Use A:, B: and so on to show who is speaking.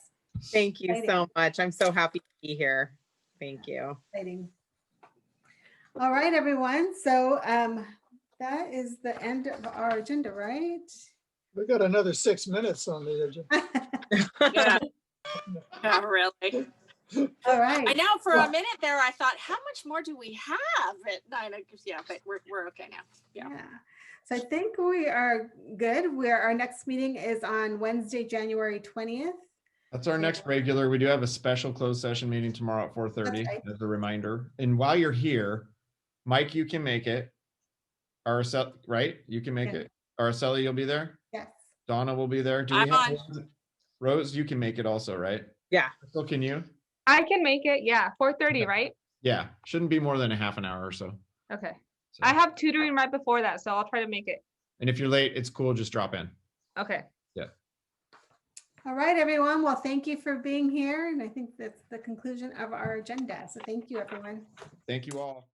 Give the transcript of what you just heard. A: Thank you
B: Exciting.
A: so much. I'm so happy to be here. Thank you.
B: Exciting. All right, everyone. So um, that is the end of our agenda, right?
C: We've got another six minutes on the agenda.
D: Yeah. Yeah, really.
B: All
D: I
B: right.
D: know for a minute there, I thought, how much more do we have at nine? o- Yeah, but we're, we're okay now. Yeah.
B: Yeah. So I think we are good. Where our next meeting is on Wednesday, January 20th.
E: That's our next regular. We do have a special closed session meeting tomorrow at four thirty
B: right.
E: as a reminder. And while you're here, Mike, you can make it. Araceli, right? You can make
B: Yeah.
E: it. Araceli, you'll be there.
B: Yes.
E: Donna will be there. Do we
D: I'm
E: have- Rose, you can make it also, right?
A: Yeah.
E: So can you?
F: I can make it, yeah, four thirty,
E: Okay.
F: right?
E: Yeah, shouldn't be more than a half an hour or so.
F: Okay.
E: So-
F: I have tutoring right before that, so I'll try to make it.
E: And if you're late, it's cool, just drop in.
F: Okay.
B: All right, everyone. Well, thank you for being here. And I think that's the conclusion of our agenda. So thank you, everyone.
E: Thank you all.